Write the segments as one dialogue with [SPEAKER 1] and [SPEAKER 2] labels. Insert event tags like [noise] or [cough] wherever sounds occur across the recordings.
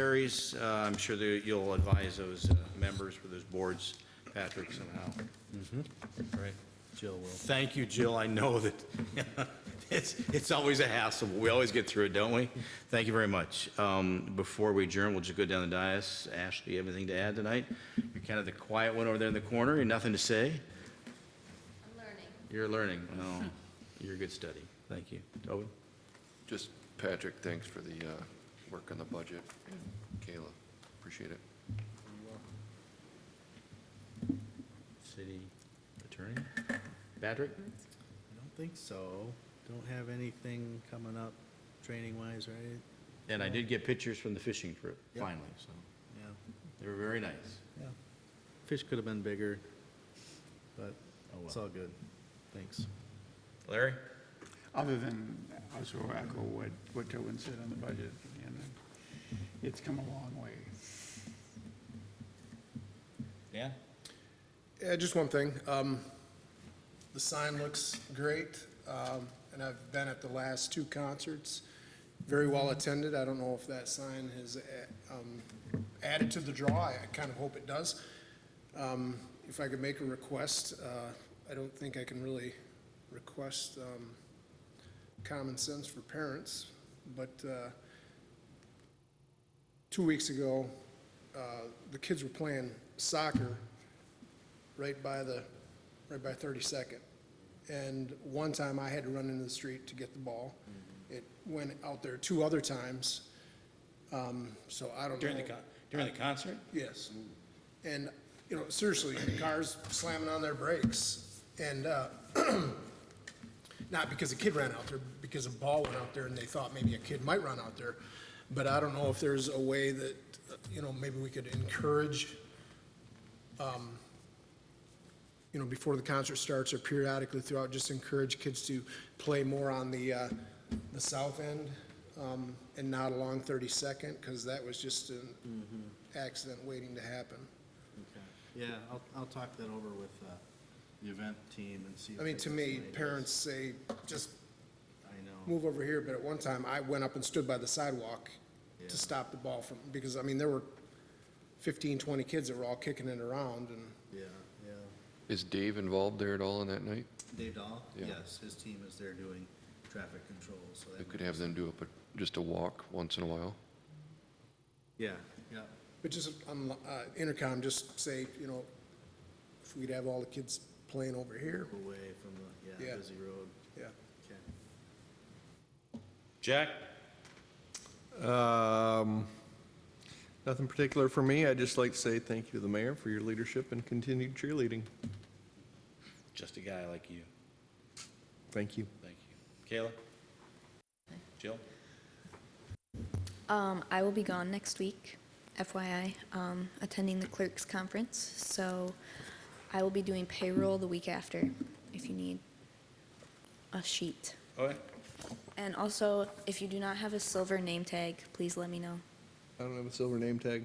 [SPEAKER 1] carries. Uh, I'm sure that you'll advise those uh, members for those boards, Patrick, somehow. Mm-hmm. Right.
[SPEAKER 2] Jill will.
[SPEAKER 1] Thank you, Jill. I know that [laughs] it's, it's always a hassle, but we always get through it, don't we? Thank you very much. Um, Before we adjourn, we'll just go down the dais. Ashley, you have anything to add tonight? You're kind of the quiet one over there in the corner. You have nothing to say?
[SPEAKER 3] I'm learning.
[SPEAKER 1] You're learning. Oh, you're a good study. Thank you. Tobin?
[SPEAKER 4] Just, Patrick, thanks for the uh, work on the budget, and Kayla, appreciate it.
[SPEAKER 1] City Attorney? Patrick?
[SPEAKER 2] I don't think so. Don't have anything coming up training-wise, right?
[SPEAKER 1] And I did get pictures from the fishing trip,
[SPEAKER 2] Yep.
[SPEAKER 1] finally, so
[SPEAKER 2] Yeah,
[SPEAKER 1] they were very nice.
[SPEAKER 2] yeah. Fish could have been bigger, but
[SPEAKER 1] Oh, well.
[SPEAKER 2] it's all good. Thanks.
[SPEAKER 1] Larry?
[SPEAKER 5] Other than also echo what, what Tobin said on the budget, and it's come a long way.
[SPEAKER 1] Yeah.
[SPEAKER 6] Yeah, just one thing. Um, The sign looks great, um, and I've been at the last two concerts, very well attended. I don't know if that sign has a- um, added to the draw. I I kind of hope it does. Um, If I could make a request, uh, I don't think I can really request um, common sense for parents, but uh, two weeks ago, uh, the kids were playing soccer right by the, right by 32nd. And one time I had to run into the street to get the ball.
[SPEAKER 1] Mm-hmm.
[SPEAKER 6] It went out there two other times, Um, so I don't know.
[SPEAKER 1] during the concert?
[SPEAKER 6] Yes. And, you know, seriously, cars slamming on their brakes. And uh, [clears throat] not because a kid ran out there, because a ball went out there and they thought maybe a kid might run out there. But I don't know if there's a way that, uh, you know, maybe we could encourage, um, you know, before the concert starts or periodically throughout, just encourage kids to play more on the, uh, the south end um, and not along 32nd, because that was just an accident waiting to happen.
[SPEAKER 2] Yeah, I'll, I'll talk that over with uh, the event team and see. if
[SPEAKER 6] I mean,
[SPEAKER 2] they
[SPEAKER 6] to
[SPEAKER 2] got
[SPEAKER 6] me,
[SPEAKER 2] some ideas.
[SPEAKER 6] parents say, just
[SPEAKER 2] I know.
[SPEAKER 6] move over here, but at one time, I went up and stood by the sidewalk
[SPEAKER 2] Yeah.
[SPEAKER 6] to stop the ball from, because, I mean, there were 15, 20 kids that were all kicking it around, and
[SPEAKER 2] Yeah, yeah.
[SPEAKER 4] Is Dave involved there at all on that night?
[SPEAKER 2] Dave Dahl?
[SPEAKER 4] Yeah.
[SPEAKER 2] Yes, his team is there doing traffic control, so. that
[SPEAKER 4] We could
[SPEAKER 2] might-
[SPEAKER 4] have them do up a- just a walk once in a while.
[SPEAKER 2] Yeah, yeah.
[SPEAKER 6] but just on uh, intercom, just say, you know, if we'd have all the kids playing over here,
[SPEAKER 2] Away from the, yeah,
[SPEAKER 6] Yeah.
[SPEAKER 2] busy road.
[SPEAKER 6] yeah.
[SPEAKER 2] Okay.
[SPEAKER 1] Jack?
[SPEAKER 7] Um, Nothing particular for me. I'd just like to say thank you to the mayor for your leadership and continued cheerleading.
[SPEAKER 1] Just a guy like you.
[SPEAKER 7] Thank you.
[SPEAKER 1] Thank you. Kayla? Jill?
[SPEAKER 3] Um, I will be gone next week, FYI, um, attending the clerks conference, so I will be doing payroll the week after, if you need a sheet.
[SPEAKER 1] Okay.
[SPEAKER 3] And also, if you do not have a silver name tag, please let me know.
[SPEAKER 7] I don't have a silver name tag.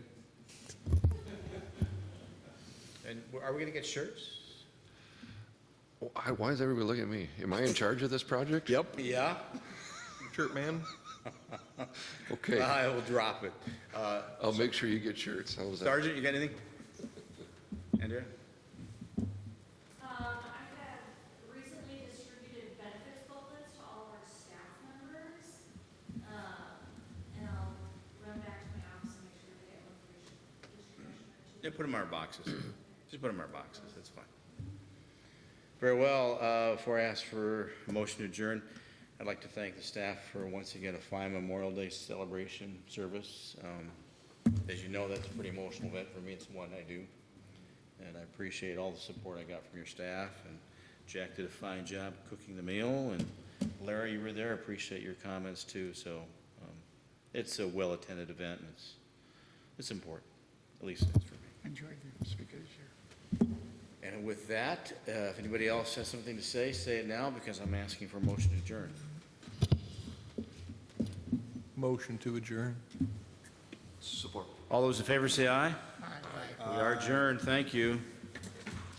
[SPEAKER 1] And are we going to get shirts?
[SPEAKER 4] Why why is everybody looking at me? Am I in charge of this project?
[SPEAKER 7] Yep.
[SPEAKER 1] Yeah,
[SPEAKER 4] [laughs]
[SPEAKER 7] Shirt man.
[SPEAKER 1] [laughs]
[SPEAKER 4] Okay,
[SPEAKER 1] I will drop it. Uh,
[SPEAKER 4] I'll make sure you get shirts. How's that?
[SPEAKER 1] Sergeant, you got anything? Andrea?
[SPEAKER 8] Um, I have recently distributed benefits booklets to all of our staff members. Um, and I'll run back to my office and make sure they have information. distribution.
[SPEAKER 1] Yeah, put them in our boxes. [clears throat] Just put them in our boxes, that's fine. Very well, uh, before I ask for a motion to adjourn, I'd like to thank the staff for once again a fine Memorial Day celebration service. Um, As you know, that's a pretty emotional event for me, it's one I do. And I appreciate all the support I got from your staff, and Jack did a fine job cooking the meal, and Larry, you were there, I appreciate your comments too, so um, it's a well-attended event, and it's, it's important, at least it's for me.
[SPEAKER 5] Enjoyed the speakers here.
[SPEAKER 1] And with that, uh, if anybody else has something to say, say it now, because I'm asking for a motion to adjourn.
[SPEAKER 7] Motion to adjourn.
[SPEAKER 4] Support.
[SPEAKER 1] All those in favor say aye. Aye. We are adjourned, thank you.